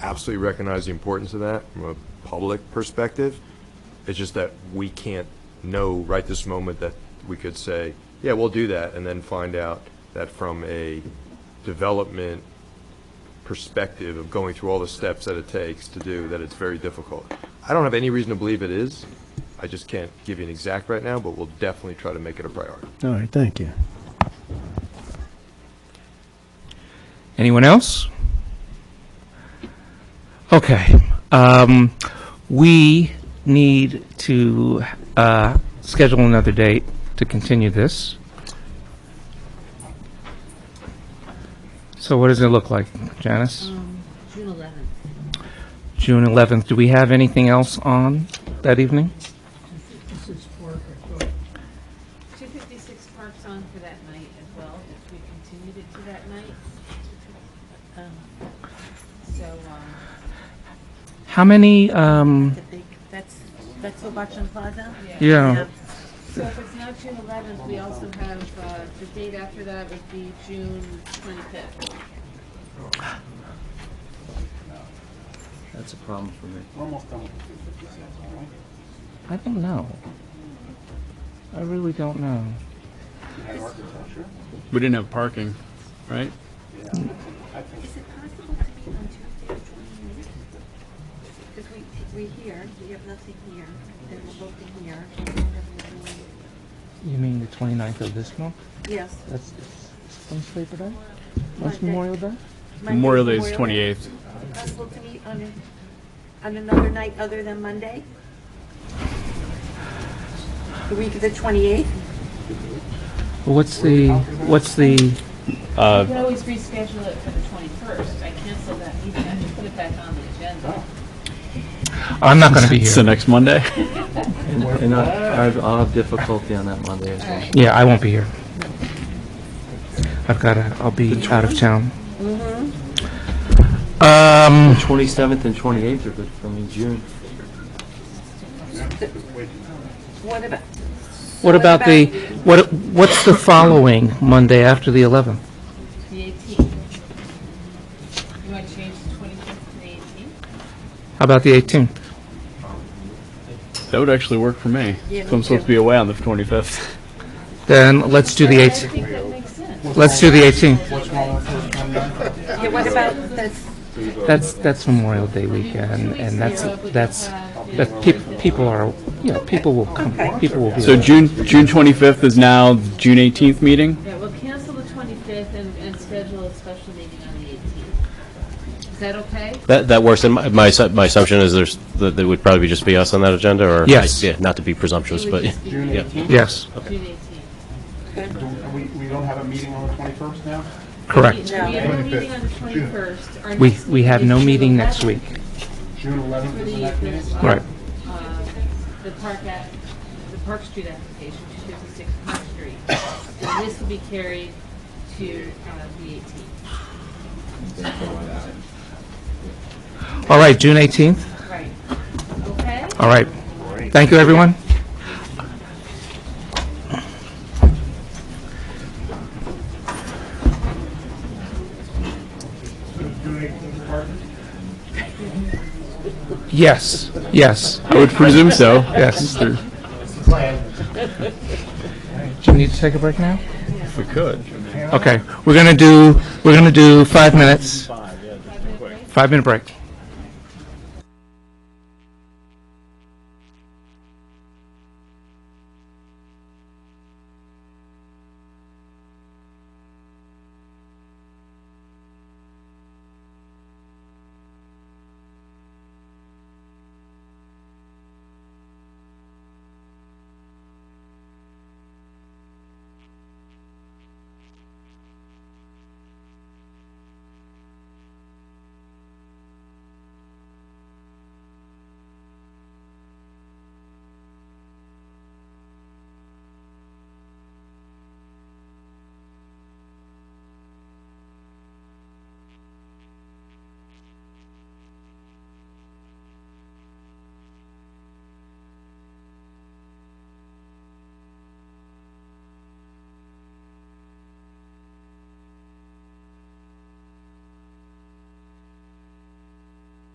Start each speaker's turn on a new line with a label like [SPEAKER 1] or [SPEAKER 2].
[SPEAKER 1] absolutely recognize the importance of that from a public perspective. It's just that we can't know right this moment that we could say, yeah, we'll do that, and then find out that from a development perspective of going through all the steps that it takes to do, that it's very difficult. I don't have any reason to believe it is. I just can't give you an exact right now, but we'll definitely try to make it a priority.
[SPEAKER 2] All right, thank you.
[SPEAKER 3] Anyone else? Okay. Um, we need to uh, schedule another date to continue this. So, what does it look like, Janice?
[SPEAKER 4] June 11th.
[SPEAKER 3] June 11th. Do we have anything else on that evening?
[SPEAKER 4] This is Park, I thought. 256 Park's on for that night as well, if we continued it to that night. Um, So, um,
[SPEAKER 3] How many? Um,
[SPEAKER 5] The big, that's, that's Obachan Plaza?
[SPEAKER 3] yeah.
[SPEAKER 4] so if it's not June 11th, we also have, uh, the date after that would be June 25th.
[SPEAKER 6] That's a problem for me.
[SPEAKER 3] I don't know. I really don't know.
[SPEAKER 7] We didn't have parking, right?
[SPEAKER 5] Is it possible to meet on Tuesday the twenty-eighth? Because we, we here, we have nothing here, then we're looking here. and then we're doing-
[SPEAKER 3] You mean the 29th of this month?
[SPEAKER 5] Yes.
[SPEAKER 3] That's when's Labor Day?
[SPEAKER 5] Monday.
[SPEAKER 3] Day?
[SPEAKER 5] Monday,
[SPEAKER 7] Memorial Day is 28th.
[SPEAKER 5] Possible to meet on, a- on another night other than Monday? The week of the twenty-eighth?
[SPEAKER 3] Well, What's the, what's the,
[SPEAKER 4] We can always reschedule it for the 21st. I canceled that meeting, I can put it back on the agenda.
[SPEAKER 3] I'm not going to be
[SPEAKER 7] It's the
[SPEAKER 3] here.
[SPEAKER 7] next Monday.
[SPEAKER 6] And I, I've- I'll have difficulty on that Monday as well.
[SPEAKER 3] Yeah, I won't be here. I've got to, I'll be out of town. Um,
[SPEAKER 6] Twenty-seventh and twenty-eighth are good for me, June.
[SPEAKER 5] What about,
[SPEAKER 3] what about the, what, what's the following Monday after the 11th?
[SPEAKER 4] The 18th. You want to change the 25th to the 18th?
[SPEAKER 3] How about the 18th?
[SPEAKER 7] That would actually work for me.
[SPEAKER 5] Yeah,
[SPEAKER 7] So I'm
[SPEAKER 5] me
[SPEAKER 7] supposed
[SPEAKER 5] too.
[SPEAKER 7] to be away on the 25th.
[SPEAKER 3] Then let's do the
[SPEAKER 4] I
[SPEAKER 3] 18th.
[SPEAKER 4] think that makes sense.
[SPEAKER 3] Let's do the 18th.
[SPEAKER 5] yeah, what about, that's,
[SPEAKER 3] That's, that's Memorial Day weekend, and that's, that's, that peop- people are, you know, people will come, people will be.
[SPEAKER 7] So June, June 25th is now the June 18th meeting?
[SPEAKER 4] Yeah, we'll cancel the 25th and, and schedule a special meeting on the 18th. Is that okay?
[SPEAKER 8] That, that works, and my, my assu- my assumption is there's, that it would probably just be us on that agenda, or?
[SPEAKER 3] Yes.
[SPEAKER 8] Yeah, not to be presumptuous,
[SPEAKER 4] It
[SPEAKER 8] but,
[SPEAKER 4] would just be June
[SPEAKER 8] yeah.
[SPEAKER 3] Yes,
[SPEAKER 4] 18th.
[SPEAKER 9] We, we don't have a meeting on the 21st now?
[SPEAKER 3] correct.
[SPEAKER 4] We have no meeting on the 21st. Our
[SPEAKER 3] We,
[SPEAKER 4] next
[SPEAKER 3] we have no
[SPEAKER 4] is
[SPEAKER 3] meeting
[SPEAKER 4] June
[SPEAKER 3] next
[SPEAKER 4] 11th
[SPEAKER 3] week.
[SPEAKER 9] June 11th
[SPEAKER 4] For the,
[SPEAKER 9] is the next meeting?
[SPEAKER 4] the,
[SPEAKER 3] Right.
[SPEAKER 4] uh, the Park at, the Park Street application, 256 Park Street. And this will be carried to uh, the 18th.
[SPEAKER 3] All right, June 18th?
[SPEAKER 4] Right. Okay?
[SPEAKER 3] All right. Thank you, everyone. Yes, yes,
[SPEAKER 7] I would presume so.
[SPEAKER 3] yes.
[SPEAKER 7] Sure.
[SPEAKER 3] Do you need to take a break now?
[SPEAKER 7] If we could.
[SPEAKER 3] Okay, we're gonna do, we're gonna do five minutes. Five minute break.